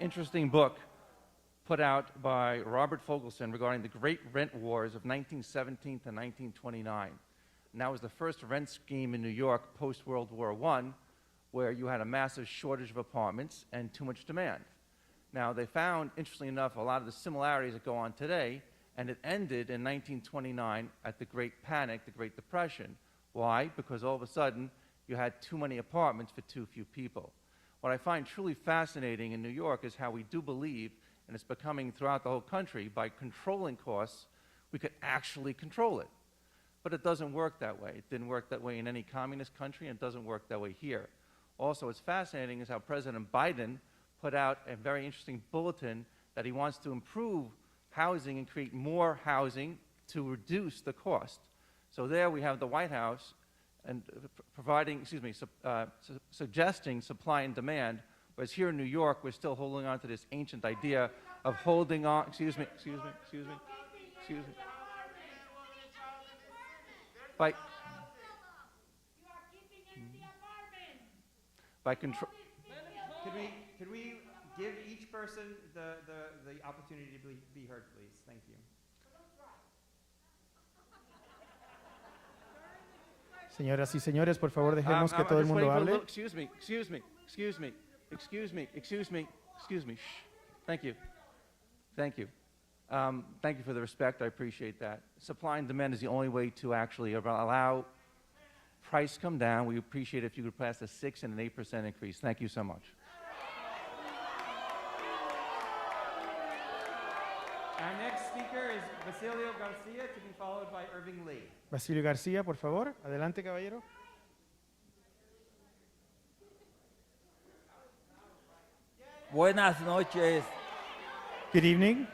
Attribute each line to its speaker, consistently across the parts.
Speaker 1: interesting book put out by Robert Fogelson regarding the great rent wars of 1917 to 1929. And that was the first rent scheme in New York post World War I, where you had a massive shortage of apartments and too much demand. Now, they found, interestingly enough, a lot of the similarities that go on today, and it ended in 1929 at the Great Panic, the Great Depression. Why? Because all of a sudden, you had too many apartments for too few people. What I find truly fascinating in New York is how we do believe, and it's becoming throughout the whole country, by controlling costs, we could actually control it. But it doesn't work that way. It didn't work that way in any communist country, and it doesn't work that way here. Also, what's fascinating is how President Biden put out a very interesting bulletin that he wants to improve housing and create more housing to reduce the cost. So there we have the White House and uh, p- providing, excuse me, su- uh, su- suggesting supply and demand, whereas here in New York, we're still holding on to this ancient idea of holding on, excuse me, excuse me, excuse me, excuse me. By,
Speaker 2: You are keeping in the apartment.
Speaker 1: by control,
Speaker 3: Could we, could we give each person the, the, the opportunity to be, be heard, please? Thank you.
Speaker 4: Señoras y señores, por favor, dejemos
Speaker 1: Um,
Speaker 5: Ah,
Speaker 4: que
Speaker 1: I'm
Speaker 4: todo el
Speaker 1: just
Speaker 4: mundo
Speaker 1: waiting for a
Speaker 4: hable.
Speaker 1: little- excuse me, excuse me, excuse me, excuse me, excuse me, excuse me. Shh. Thank you. Thank you. Um, thank you for the respect. I appreciate that. Supply and demand is the only way to actually av- allow price come down. We appreciate if you could pass a 6 and an 8% increase. Thank you so much.
Speaker 3: Our next speaker is Basilio Garcia, to be followed by Irving Lee.
Speaker 4: Basilio García, por favor. Adelante, caballero.
Speaker 5: Buenas noches
Speaker 4: Good evening.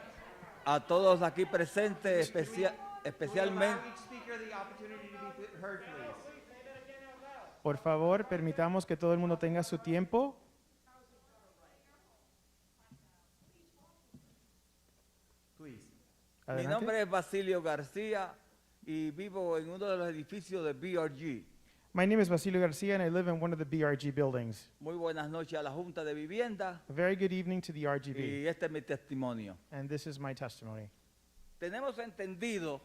Speaker 5: a todos aquí presentes,
Speaker 3: Especially,
Speaker 5: especia- especialmente
Speaker 3: each speaker the opportunity to be th- heard, please.
Speaker 4: Por favor, permitamos que todo el mundo tenga su tiempo.
Speaker 3: Please.
Speaker 5: mi
Speaker 4: Adelante.
Speaker 5: nombre es Basilio García y vivo en uno de los edificios de BRG.
Speaker 4: My name is Basilio Garcia and I live in one of the BRG buildings.
Speaker 5: Muy buenas noches a la Junta de Vivienda
Speaker 4: A very good evening to the RGB.
Speaker 5: y este es mi testimonio.
Speaker 4: And this is my testimony.
Speaker 5: Tenemos entendido,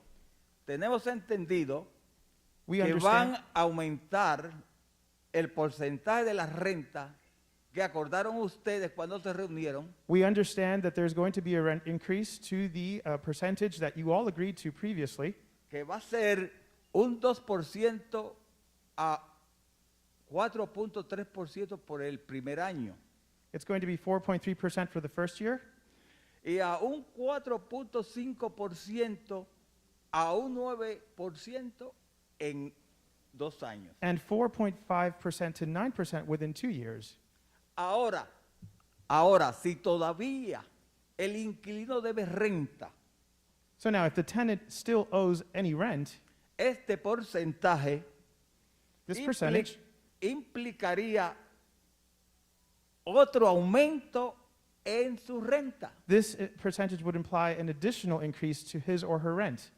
Speaker 5: tenemos entendido
Speaker 4: We
Speaker 5: que
Speaker 4: understand,
Speaker 5: van a aumentar el porcentaje de la renta que acordaron ustedes cuando se reunieron
Speaker 4: we understand that there's going to be a rent increase to the uh, percentage that you all agreed to previously.
Speaker 5: que va a ser un 2% a 4.3% por el primer año
Speaker 4: It's going to be 4.3% for the first year
Speaker 5: y a un 4.5% a un 9% en dos años.
Speaker 4: and 4.5% to 9% within two years.
Speaker 5: Ahora, ahora, si todavía el inquilino debe renta,
Speaker 4: So now, if the tenant still owes any rent,
Speaker 5: este porcentaje
Speaker 4: this
Speaker 5: impli-
Speaker 4: percentage
Speaker 5: implicaría otro aumento en su renta.
Speaker 4: this uh, percentage would imply an additional increase to his or her rent.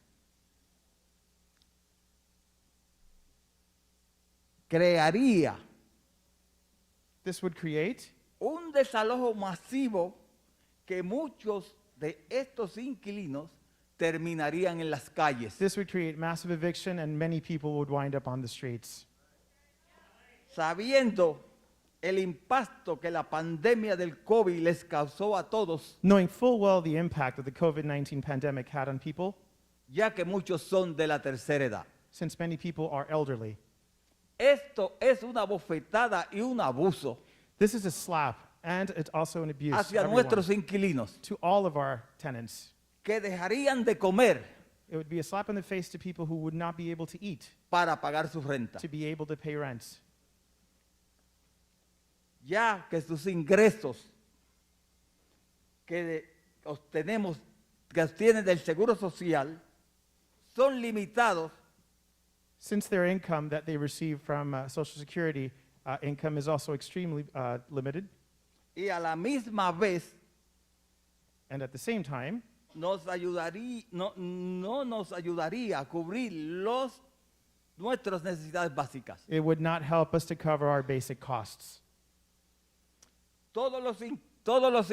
Speaker 5: crearía
Speaker 4: This would create
Speaker 5: un desalojo masivo que muchos de estos inquilinos terminarían en las calles.
Speaker 4: this would create massive eviction and many people would wind up on the streets.
Speaker 5: Sabiendo el impacto que la pandemia del COVID les causó a todos,
Speaker 4: Knowing full well the impact that the COVID-19 pandemic had on people
Speaker 5: ya que muchos son de la tercera edad.
Speaker 4: since many people are elderly.
Speaker 5: Esto es una bofetada y un abuso
Speaker 4: This is a slap and it's also an abuse to
Speaker 5: hacia
Speaker 4: everyone,
Speaker 5: nuestros inquilinos
Speaker 4: to all of our tenants.
Speaker 5: que dejarían de comer
Speaker 4: It would be a slap in the face to people who would not be able to eat,
Speaker 5: para pagar su renta,
Speaker 4: to be able to pay rent.
Speaker 5: ya que sus ingresos que de- obtenemos, que obtienen del Seguro Social, son limitados
Speaker 4: Since their income that they receive from uh, Social Security uh, income is also extremely uh, limited,
Speaker 5: y a la misma vez
Speaker 4: and at the same time,
Speaker 5: nos ayudaría, no, no nos ayudaría a cubrir los, nuestras necesidades básicas.
Speaker 4: it would not help us to cover our basic costs.
Speaker 5: Todos los, in- todos los